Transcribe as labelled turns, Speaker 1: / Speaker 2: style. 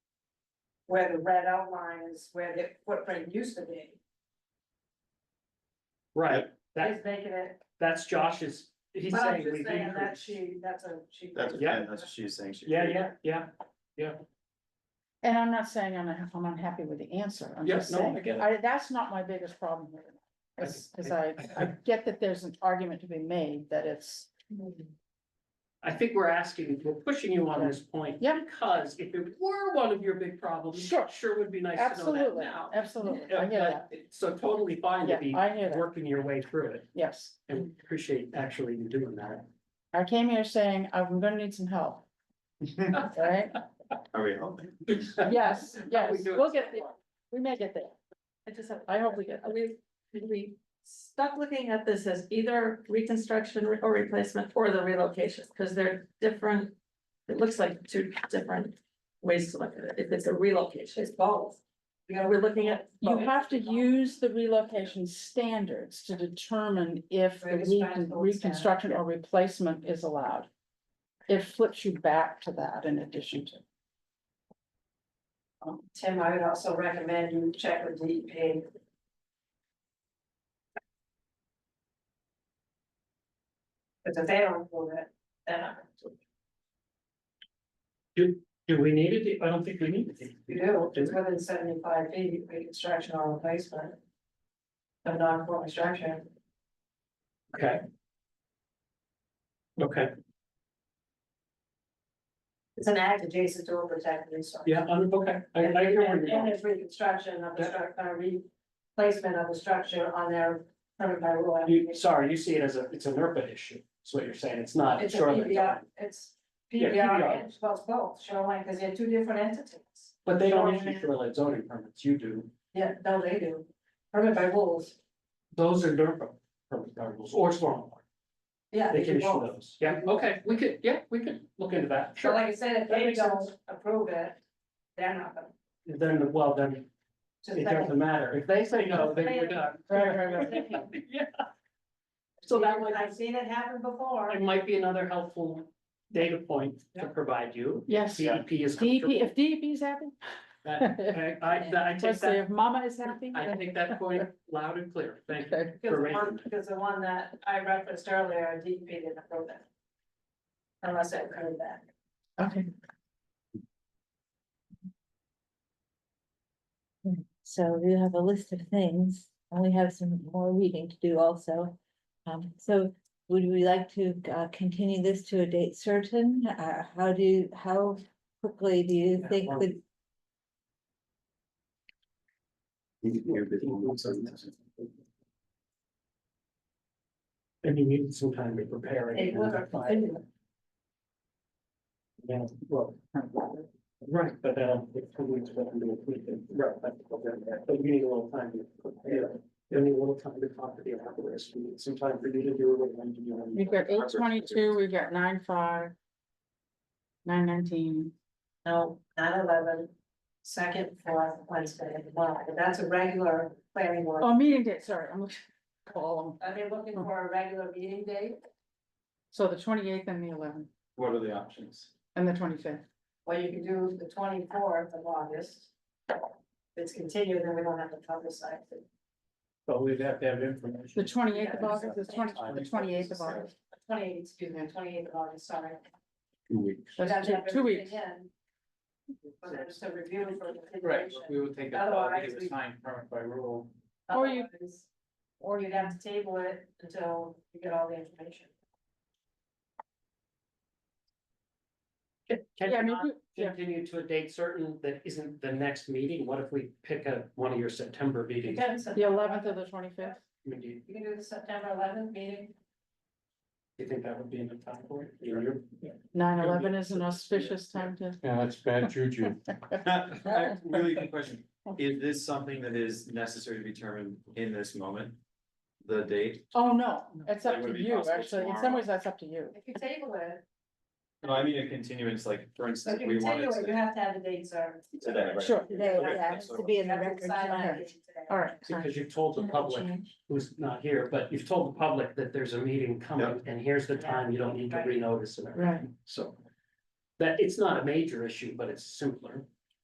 Speaker 1: where the red outline is where the footprint used to be,
Speaker 2: Right, that,
Speaker 1: is making it,
Speaker 2: that's Josh's, he's
Speaker 1: but I'm
Speaker 2: saying
Speaker 1: just
Speaker 2: we've
Speaker 1: saying that
Speaker 2: increased.
Speaker 1: she, that's a, she.
Speaker 3: That's,
Speaker 2: Yeah.
Speaker 3: yeah, that's what she's saying. She-
Speaker 2: Yeah, yeah, yeah,
Speaker 4: And I'm not saying I'm, unha- I'm unhappy with the answer, I'm
Speaker 2: Yeah,
Speaker 4: just
Speaker 2: no, I
Speaker 4: saying,
Speaker 2: get it.
Speaker 4: I, that's not my biggest problem here. As, as I, I get that there's an argument to be made that it's,
Speaker 2: I think we're asking, we're pushing you on this point.
Speaker 4: Yeah.
Speaker 2: Because if it were one of your big problems,
Speaker 4: Sure.
Speaker 2: sure would be nice to know that
Speaker 4: absolutely,
Speaker 2: now.
Speaker 4: absolutely,
Speaker 2: Yeah,
Speaker 4: I hear that,
Speaker 2: but it's So totally fine to be
Speaker 4: yeah, I hear that,
Speaker 2: working your way through it,
Speaker 4: yes.
Speaker 2: and appreciate actually you doing that.
Speaker 4: I came here saying, I'm gonna need some help, all right?
Speaker 3: Are we helping?
Speaker 4: Yes, yes,
Speaker 2: do it
Speaker 4: we'll get
Speaker 2: so
Speaker 4: there, we may get there,
Speaker 5: I just have,
Speaker 4: I hope we get
Speaker 5: are
Speaker 4: there.
Speaker 5: we, are we stuck looking at this as either reconstruction or replacement or the relocation, because they're different. It looks like two different ways to look at it, if it's a relocation,
Speaker 1: It's both. You know,
Speaker 5: we're looking at.
Speaker 4: You have to use the relocation standards to determine if the
Speaker 1: Right, it's back to
Speaker 4: recon-
Speaker 1: the old standard,
Speaker 4: reconstruction or replacement is allowed. It flips you back to that in addition to.
Speaker 1: Tim, I would also recommend you check with E DEP. Because if they don't do it, then I-
Speaker 2: Do we need it? I don't think we need it.
Speaker 1: you do, it's within seventy-five feet, reconstruction or replacement. Of non-conforming structure,
Speaker 2: Okay. Okay,
Speaker 1: it's an act adjacent to a protected resource.
Speaker 2: yeah, I'm, okay, I, I
Speaker 1: And
Speaker 2: hear where you're
Speaker 1: and
Speaker 2: going.
Speaker 1: it's reconstruction of the
Speaker 2: Yeah.
Speaker 1: structure, replacement of the structure on their permit by rule.
Speaker 2: You, sorry, you see it as a, it's an NERPA issue, is what you're saying, it's not
Speaker 1: It's a
Speaker 2: shoreline.
Speaker 1: PBR, it's
Speaker 2: Yeah,
Speaker 1: PBR,
Speaker 2: PBR.
Speaker 1: it's both, both, shoreline, because they're two different entities.
Speaker 2: But they don't issue
Speaker 1: Shoreline.
Speaker 2: shoreline zoning permits, you do,
Speaker 1: Yeah, no, they do, permit by rules,
Speaker 2: those are NERPA permit rules, or stormwater,
Speaker 1: yeah.
Speaker 2: they can
Speaker 1: do
Speaker 2: issue
Speaker 1: both.
Speaker 2: those, yeah, okay, we could, yeah, we could look into that,
Speaker 1: So
Speaker 2: sure.
Speaker 1: like I said, if
Speaker 2: That
Speaker 1: they
Speaker 2: makes
Speaker 1: don't approve it, they're not gonna.
Speaker 2: Then, well, then,
Speaker 1: just
Speaker 2: it
Speaker 1: like-
Speaker 2: doesn't matter, if they say no, then we're done.
Speaker 4: Right, right, right.
Speaker 2: Yeah. So that might,
Speaker 1: I've seen it happen before.
Speaker 2: it might be another helpful data point to
Speaker 1: Yeah.
Speaker 2: provide you,
Speaker 4: Yes, DEP,
Speaker 2: CEP is. comfortable.
Speaker 4: if DEP is happy,
Speaker 2: That- I, I, I take
Speaker 4: let's say
Speaker 2: that,
Speaker 4: if mama is happy.
Speaker 2: I
Speaker 4: then-
Speaker 2: take that point loud and clear, thank you.
Speaker 4: Okay.
Speaker 1: Because
Speaker 2: for
Speaker 1: the one,
Speaker 2: raising
Speaker 1: because the one that I referenced earlier, DEP didn't approve it. Unless I heard that.
Speaker 4: Okay.
Speaker 6: So we have a list of things, and we have some more reading to do also. Um, so would we like to uh continue this to a date certain? Uh, how do, how quickly do you
Speaker 2: Yeah,
Speaker 6: think
Speaker 2: well-
Speaker 6: that?
Speaker 2: And you need some time to prepare.
Speaker 1: It
Speaker 2: it.
Speaker 1: would have been-
Speaker 2: Yeah, well, Right, but um, it's two weeks, but we can, right, but but you need a little time to prepare. You need a little time to talk to the applicants, we need some time for you to do what you need to do.
Speaker 4: We've got eight twenty-two, we've got nine five. Nine nineteen,
Speaker 1: No, nine eleven, second, fourth, Wednesday, one, but that's a regular planning board.
Speaker 4: oh, meeting date, sorry, I'm looking. Column,
Speaker 1: Are they looking for a regular meeting date?
Speaker 4: so the twenty-eighth and the eleventh
Speaker 3: What are the options?
Speaker 4: and the twenty-fifth,
Speaker 1: Well, you can do the twenty-fourth of August. If it's continued, then we don't have to publicize it.
Speaker 2: But we'd have to have information.
Speaker 4: the twenty-eighth of
Speaker 1: Yeah,
Speaker 4: August, the twenty, the twenty-eighth of August.
Speaker 1: Twenty-eighth, excuse me, twenty-eighth of August, sorry.
Speaker 3: Two weeks.
Speaker 4: That's
Speaker 1: Gotta
Speaker 4: two,
Speaker 1: have
Speaker 4: two
Speaker 1: everything
Speaker 4: weeks,
Speaker 1: in, But then it's a review for the
Speaker 3: Right,
Speaker 1: continuation.
Speaker 3: we would take
Speaker 1: a call to give a Otherwise, we-
Speaker 3: time permit by rule.
Speaker 4: Or you-
Speaker 1: Otherwise, Or you'd have to table it until you get all the information.
Speaker 4: yeah, I mean, we- yeah,
Speaker 2: Continue to a date certain that isn't the next meeting, what if we pick a, one of your September
Speaker 1: You
Speaker 2: meetings? I
Speaker 1: can
Speaker 4: the
Speaker 1: September
Speaker 4: eleventh or the twenty-fifth,
Speaker 2: mean, do you-
Speaker 1: You can do the September eleventh meeting.
Speaker 2: do you think that would be enough time for it? You know, you're-
Speaker 4: nine eleven is an auspicious time to.
Speaker 7: Yeah, that's bad juju.
Speaker 3: Really good question. Is this something that is necessary to be determined in this moment? The date?
Speaker 4: Oh, no, it's
Speaker 3: It
Speaker 4: up
Speaker 3: would
Speaker 4: to
Speaker 3: be
Speaker 4: you,
Speaker 3: possible
Speaker 4: actually, in some
Speaker 3: tomorrow.
Speaker 4: ways, that's up to you.
Speaker 1: If you table it,
Speaker 3: No, I mean a continuance, like, for
Speaker 1: so if
Speaker 3: instance,
Speaker 1: you
Speaker 3: we wanted
Speaker 1: table it, you
Speaker 3: to
Speaker 1: have to have the date served.
Speaker 3: today, right?
Speaker 4: Sure,
Speaker 6: Today,
Speaker 3: Okay,
Speaker 6: yeah, it has
Speaker 3: so-
Speaker 6: to be in
Speaker 1: You
Speaker 6: the
Speaker 1: have to
Speaker 6: record.
Speaker 1: decide on
Speaker 6: tonight.
Speaker 1: the date today.
Speaker 4: all right. fine.
Speaker 2: Because you've told the public who's not here, but you've told the public that there's a meeting coming and here's the time, you don't need to renotice and everything, so. That, it's not a major issue, but it's simpler.